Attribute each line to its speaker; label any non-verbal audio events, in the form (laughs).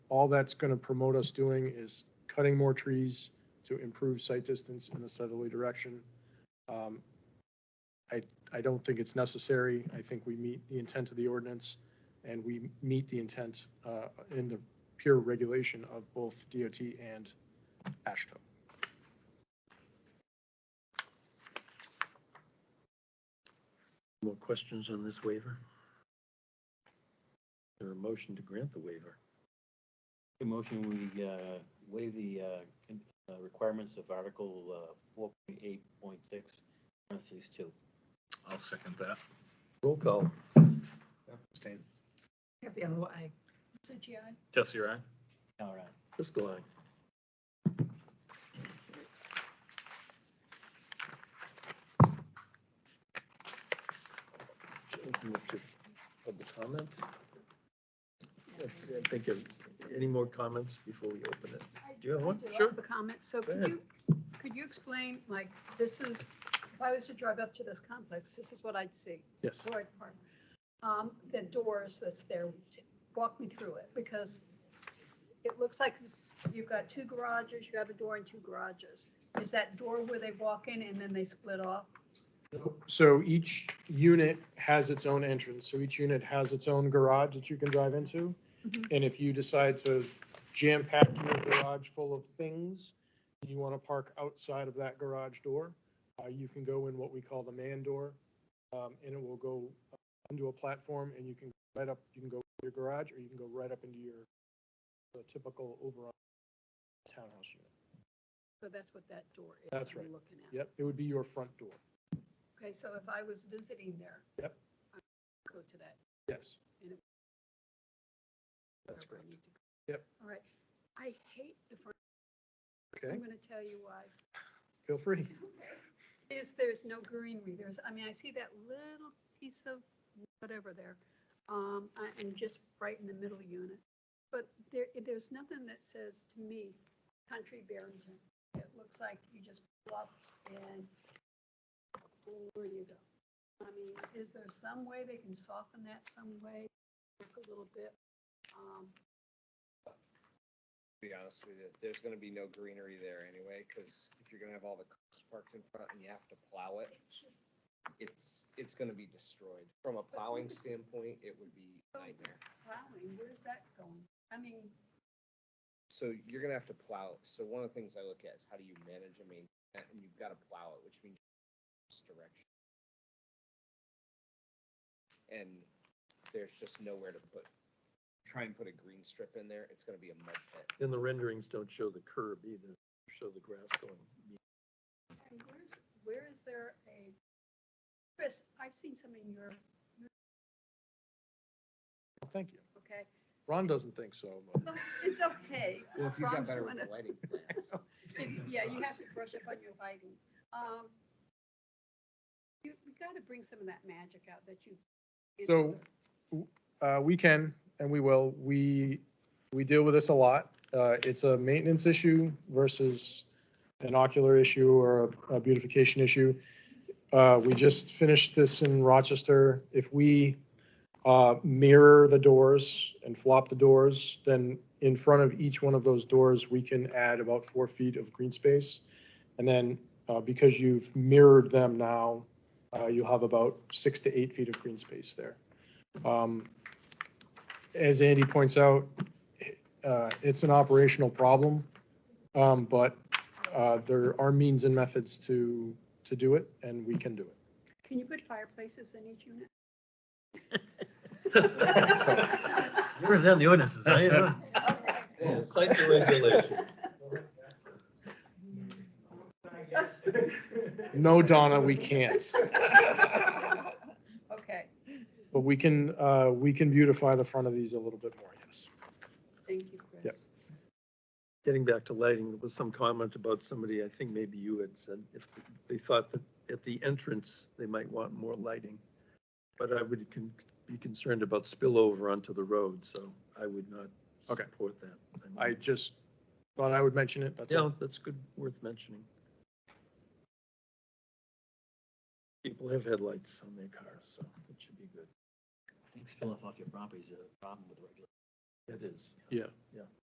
Speaker 1: all that's going to promote us doing is cutting more trees to improve sight distance in the southerly direction. Um, I, I don't think it's necessary. I think we meet the intent of the ordinance and we meet the intent uh, in the pure regulation of both DOT and ASHTO.
Speaker 2: More questions on this waiver? There a motion to grant the waiver?
Speaker 3: The motion, we uh, waive the uh, con- uh, requirements of Article uh, 4.8.6, parentheses 2.
Speaker 2: I'll second that. Roll call.
Speaker 4: Abstain.
Speaker 5: Capello, I.
Speaker 6: Suji, aye.
Speaker 7: Jesse, right?
Speaker 3: All right.
Speaker 2: Driscoll, aye. Should open up to Public comment? I think of, any more comments before we open it? Do you have one?
Speaker 6: I do
Speaker 2: Sure.
Speaker 6: have a comment. So
Speaker 2: Go
Speaker 6: could
Speaker 2: ahead.
Speaker 6: you, could you explain, like, this is, if I was to drive up to this complex, this is what I'd see.
Speaker 1: Yes.
Speaker 6: Floyd Park. Um, The doors that's there, t- walk me through it, because it looks like this- you've got two garages, you have a door and two garages. Is that door where they walk in and then they split off?
Speaker 1: So each unit has its own entrance, so each unit has its own garage that you can drive into.
Speaker 6: Mhm.
Speaker 1: And if you decide to jam pack your garage full of things, you want to park outside of that garage door, uh, you can go in what we call the man door. um, And it will go into a platform and you can right up, you can go to your garage or you can go right up into your the typical overall townhouse unit.
Speaker 6: So that's what that door is.
Speaker 1: That's
Speaker 6: I'm
Speaker 1: right.
Speaker 6: Looking at.
Speaker 1: Yep, it would be your front door.
Speaker 6: Okay, so if I was visiting there.
Speaker 1: Yep.
Speaker 6: I would Go to that.
Speaker 1: Yes, That's
Speaker 6: wherever I need to go.
Speaker 1: Yep.
Speaker 6: All right. I hate the front.
Speaker 1: okay,
Speaker 6: I'm going to tell you why.
Speaker 1: feel free.
Speaker 6: Is there's no greenery. There's, I mean, I see that little piece of whatever there. Um, I- and just right in the middle unit. But there, there's nothing that says to me, country Barrington. It looks like you just pull up and where you go. I mean, is there some way they can soften that some way, work a little bit? Um,
Speaker 4: to be honest with you, there's gonna be no greenery there anyway, because if you're gonna have all the cars parked in front and you have to plow it,
Speaker 6: It's just
Speaker 4: it's, it's gonna be destroyed. From a plowing standpoint, it would be a nightmare.
Speaker 6: plowing, where's that going? I mean,
Speaker 4: So you're gonna have to plow. So one of the things I look at is how do you manage and maintain that, and you've gotta plow it, which means this direction. And there's just nowhere to put, try and put a green strip in there, it's gonna be a mud pit.
Speaker 2: And the renderings don't show the curb either, show the grass going.
Speaker 6: and where's, where is there a, Chris, I've seen some in Europe,
Speaker 1: Thank you.
Speaker 6: okay?
Speaker 1: Ron doesn't think so, but.
Speaker 6: Well, It's okay.
Speaker 4: Well, if you've got
Speaker 6: Ron's
Speaker 4: better
Speaker 6: one of-
Speaker 4: lighting plans.
Speaker 6: (laughs) Yeah, you have to brush up on your lighting. Um, You, you gotta bring some of that magic out that you.
Speaker 1: So- Uh, we can and we will. We, we deal with this a lot. Uh, it's a maintenance issue versus an ocular issue or a- a beautification issue. Uh, we just finished this in Rochester. If we, uh, mirror the doors and flop the doors, then in front of each one of those doors, we can add about four feet of green space. And then, uh, because you've mirrored them now, uh, you'll have about six to eight feet of green space there. Um, As Andy points out, uh, it's an operational problem, um, but uh, there are means and methods to, to do it, and we can do it.
Speaker 6: Can you put fireplaces in each unit? (laughs)
Speaker 2: Where is that in the ordinances? I uh, don't know.
Speaker 6: Okay.
Speaker 2: Site regulation.
Speaker 6: (laughs)
Speaker 1: No, Donna, we can't,
Speaker 6: Okay,
Speaker 1: but we can, uh, we can beautify the front of these a little bit more, yes.
Speaker 6: thank you, Chris.
Speaker 2: Getting back to lighting, there was some comment about somebody, I think maybe you had said, if they thought that at the entrance, they might want more lighting. But I would con- be concerned about spillover onto the road, so I would not
Speaker 1: Okay.
Speaker 2: support that.
Speaker 1: I just thought I would mention it, that's
Speaker 2: Yeah,
Speaker 1: all.
Speaker 2: that's good, worth mentioning. People have headlights on their cars, so it should be good.
Speaker 3: uh, I think spilling off your property is a problem with regulation.
Speaker 2: It is.
Speaker 1: Yeah.
Speaker 2: Yeah.